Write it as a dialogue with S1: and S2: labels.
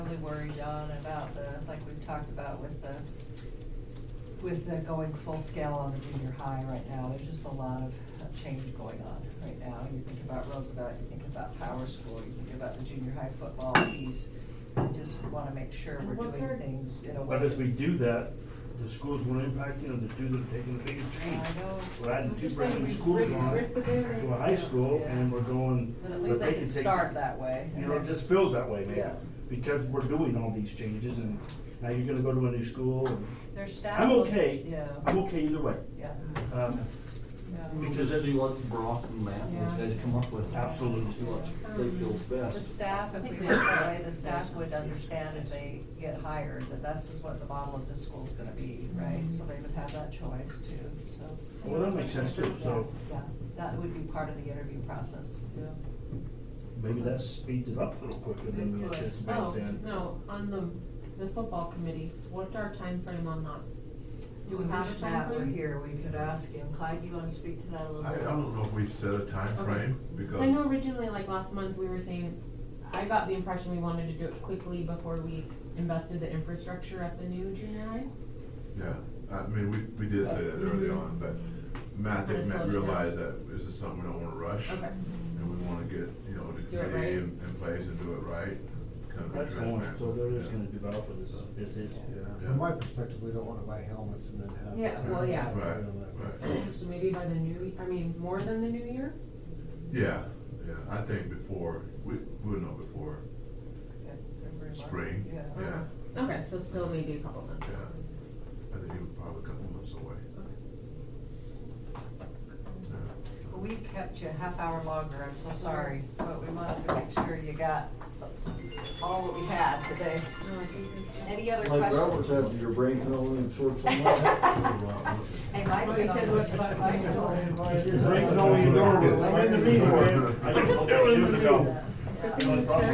S1: really worried on about the, like we've talked about with the, with the going full scale on the junior high right now, there's just a lot of change going on right now. You think about Roosevelt, you think about Power School, you think about the junior high football piece. We Just wanna make sure
S2: And
S1: we're
S2: what's
S1: doing
S2: our-
S1: things in a way.
S3: But as we
S1: that-
S3: do that, the schools will impact, you know, the do the, taking the biggest change.
S1: I know.
S3: We're adding
S2: I'm
S3: two
S2: just
S3: brand new
S2: saying,
S3: schools
S2: rip-
S3: on
S2: rip it in and-
S3: to a high school
S1: Yeah.
S3: and we're going.
S1: But at least
S3: but
S1: they
S3: can
S1: can
S3: take-
S1: start that way.
S3: You know, it just feels that way maybe,
S1: Yeah.
S3: because we're doing all these changes and now you're gonna go to a new school and
S1: Their staff.
S3: I'm
S1: will-
S3: okay.
S1: Yeah,
S3: I'm okay either way.
S1: yeah,
S3: Um,
S1: yeah.
S3: Because
S4: Because
S3: it-
S4: see what Brock and Matt, and
S1: Yeah.
S4: those guys come up with.
S3: Absolutely.
S4: See what they feel
S1: The
S4: best.
S1: staff, if we went that way, the staff would understand as they get hired, that this is what the model of this school's gonna be, right? So they would have that choice too, so.
S3: Well, that makes sense too, so
S1: Yeah, that would be part of the interview process, yeah.
S3: maybe that speeds it up a little quicker than we anticipated
S2: Oh,
S3: then.
S2: no, on the, the football committee, what's our time frame on that? Do we have a
S1: If Matt were
S2: timeframe?
S1: here, we could ask him. Clyde, you wanna speak to that a little
S5: I, I
S1: bit?
S5: don't know if we've set a time
S2: Okay.
S5: frame
S2: I know
S5: because,
S2: originally, like last month, we were saying, I got the impression we wanted to do it quickly before we invested the infrastructure at the new junior high.
S5: yeah, I mean, we, we did say that early
S2: Mhm.
S5: on, but Matt, I
S2: But
S5: think
S2: it's
S5: Matt
S2: slowed down.
S5: realized that this is something we don't wanna rush.
S2: Okay.
S5: And we wanna get, you know, the
S2: Do it
S5: committee
S2: right.
S5: in, in place and do it right. kind of
S3: That's going,
S5: transparent.
S3: so they're just
S5: Yeah.
S3: gonna develop with this, this is.
S5: Yeah.
S6: From my perspective, we don't wanna buy helmets and then have.
S2: Yeah, well, yeah.
S5: Right, right.
S2: So maybe by the new, I mean, more than the new year?
S5: Yeah, yeah, I think before, we, we'll know before
S1: Okay, February, March.
S5: spring,
S1: Yeah.
S5: yeah,
S2: Okay, so still maybe a couple months.
S5: yeah. I think you're probably a couple months away,
S2: Okay.
S5: yeah.
S1: We kept you a half hour longer, I'm so sorry, but we wanted to make sure you got all that we had today. Any other
S4: Like
S1: questions?
S4: Robert's after your brain filling and short term.
S1: Hey, Mike.
S2: Well, he said what- what-
S3: Right, no, you don't. I'm in the meeting, man. I just-
S5: Still in the meeting.
S3: No problem.